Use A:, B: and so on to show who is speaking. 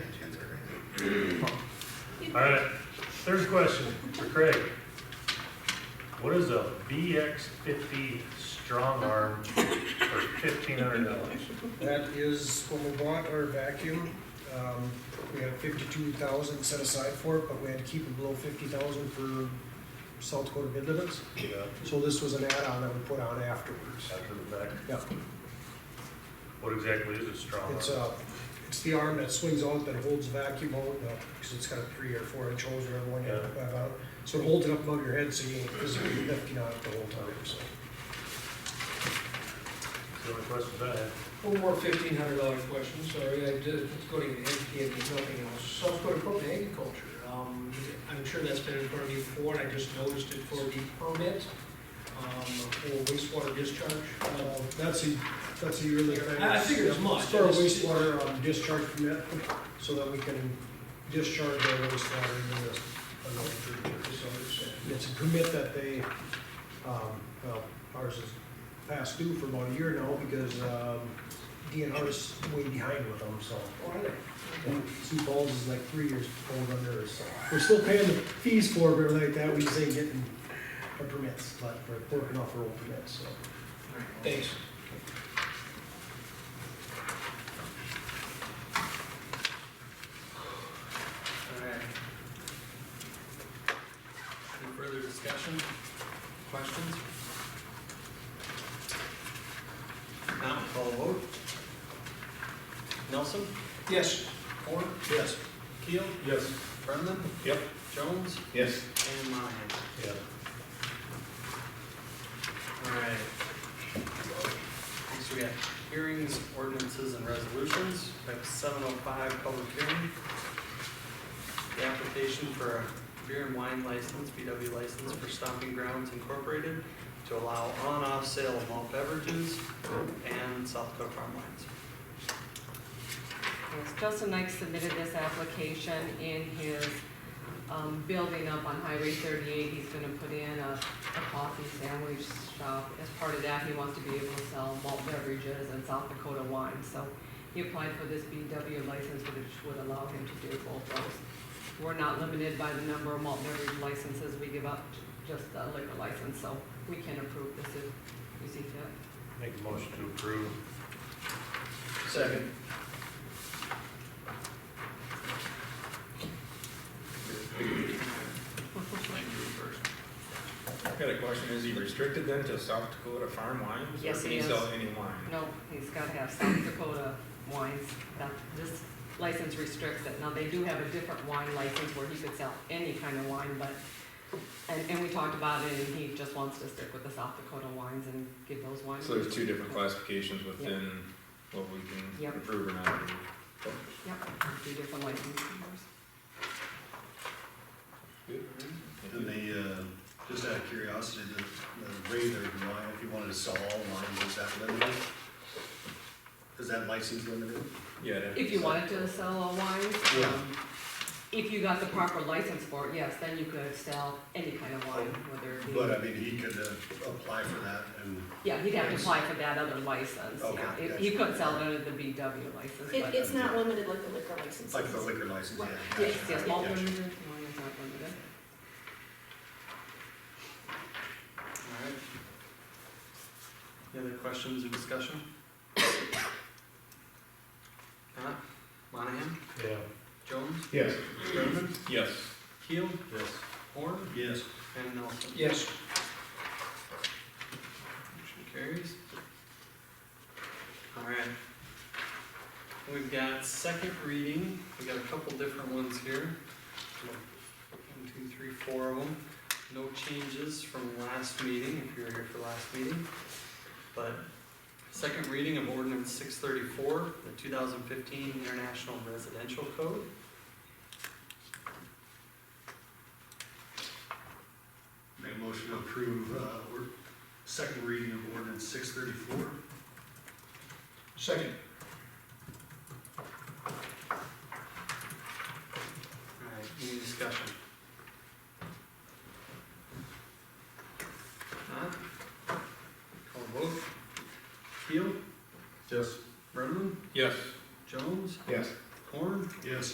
A: All right, third question for Craig. What is a BX fifty strong arm for fifteen hundred dollars?
B: That is when we bought our vacuum, um, we had fifty-two thousand set aside for it, but we had to keep it below fifty thousand for South Dakota bid limits.
A: Yeah,
B: So this was an add-on that we put on afterwards.
A: after the fact,
B: Yeah,
A: what exactly is a strong
B: it's
A: arm?
B: uh it's the arm that swings out that holds vacuum out, uh, cause it's got a three or four inch hose or everyone had to
A: Yeah.
B: have out. So it holds it up above your head so you ain't physically lifting on it the whole time, so.
A: That's The only questions I have.
C: One more fifteen hundred dollar question, sorry, I did, it's going to NPA, there's nothing else. South Dakota Department of Agriculture, um, I'm sure that's been in front of you before, and I just noticed it for the permit, um, for wastewater discharge.
B: Uh,
C: Uh,
B: That's a, that's a yearly thing.
C: I- I figured as much.
B: For wastewater um, discharge permit, so that we can discharge our wastewater into this. another creature.
C: just so I understand.
B: It's a permit that they, um, well, ours is past due for about a year now because, um, DNR's way behind with them, so.
C: All right.
B: And Sioux Falls is like three years old under us, so. We're still paying the fees for it, but like that, we just ain't getting our permits, but we're working off our old permits, so.
C: Thanks.
D: Alright. Any further discussion, questions? Now, call a vote. Nelson,
C: Yes,
D: Horn,
B: Yes.
D: Keel,
A: Yes.
D: Brendan,
A: Yep.
D: Jones,
A: Yes.
D: and Monahan.
A: Yeah.
D: Alright. Next we got hearings, ordinances, and resolutions. We have seven oh five public hearing. The application for a beer and wine license, BW license for Stomping Grounds Incorporated to allow on-off sale of malt beverages and South Dakota farm wines.
E: Yes, Justin Knight submitted this application in his, um, building up on Highway thirty-eight. He's gonna put in a, a coffee sandwich shop. As part of that, he wants to be able to sell malt beverages and South Dakota wine, so he applied for this BW license, which would allow him to do both those. We're not limited by the number of malt beverage licenses we give up, just a liquor license, so we can approve this if we see fit.
A: Make a motion to approve.
D: Second.
F: I've got a question, is he restricted then to South Dakota farm wines? Or
E: Yes, he
F: can he
E: is.
F: sell any wine?
E: No, he's got to have South Dakota wines. That, this license restricts it. Now, they do have a different wine license where he could sell any kind of wine, but, and, and we talked about it, and he just wants to stick with the South Dakota wines and give those wines.
F: So there's two different classifications within what we
E: Yep.
F: can approve or not approve.
E: Yep, two different license numbers.
G: And they, uh, just out of curiosity, the, the way they're wine, if you wanted to sell all wine, is that limited? Is that license limited?
F: Yeah. it'd have to
E: If
F: be
E: you
F: South-
E: wanted to sell all wines,
G: Yeah.
E: um, if you got the proper license for it, yes, then you could sell any kind of wine, whether it be.
G: But I mean, he could uh, apply for that and,
E: Yeah, he'd have to apply for that other license.
G: Okay,
E: Yeah, If- He
G: gotcha.
E: couldn't sell it under the BW license,
H: It,
E: but.
H: it's not limited like the liquor license.
G: like the liquor license, yeah.
E: Yes,
G: gotcha,
E: yes, malt
G: gotcha.
E: beverages, wine is not limited.
D: Alright. Any other questions or discussion? Not? Monahan,
A: Yeah.
D: Jones,
A: Yes.
D: Brendan,
F: Yes.
D: Keel,
A: Yes.
D: Horn,
G: Yes.
D: and Nelson.
C: yes.
D: Motion carries. All right. We've got second reading, we've got a couple different ones here. One, two, three, four of them. No changes from last meeting, if you were here for last meeting. But second reading of ordinance six thirty-four, the two thousand fifteen International Residential Code.
G: Make a motion to approve, uh, or, second reading of ordinance six thirty-four.
C: Second.
D: All right, any discussion?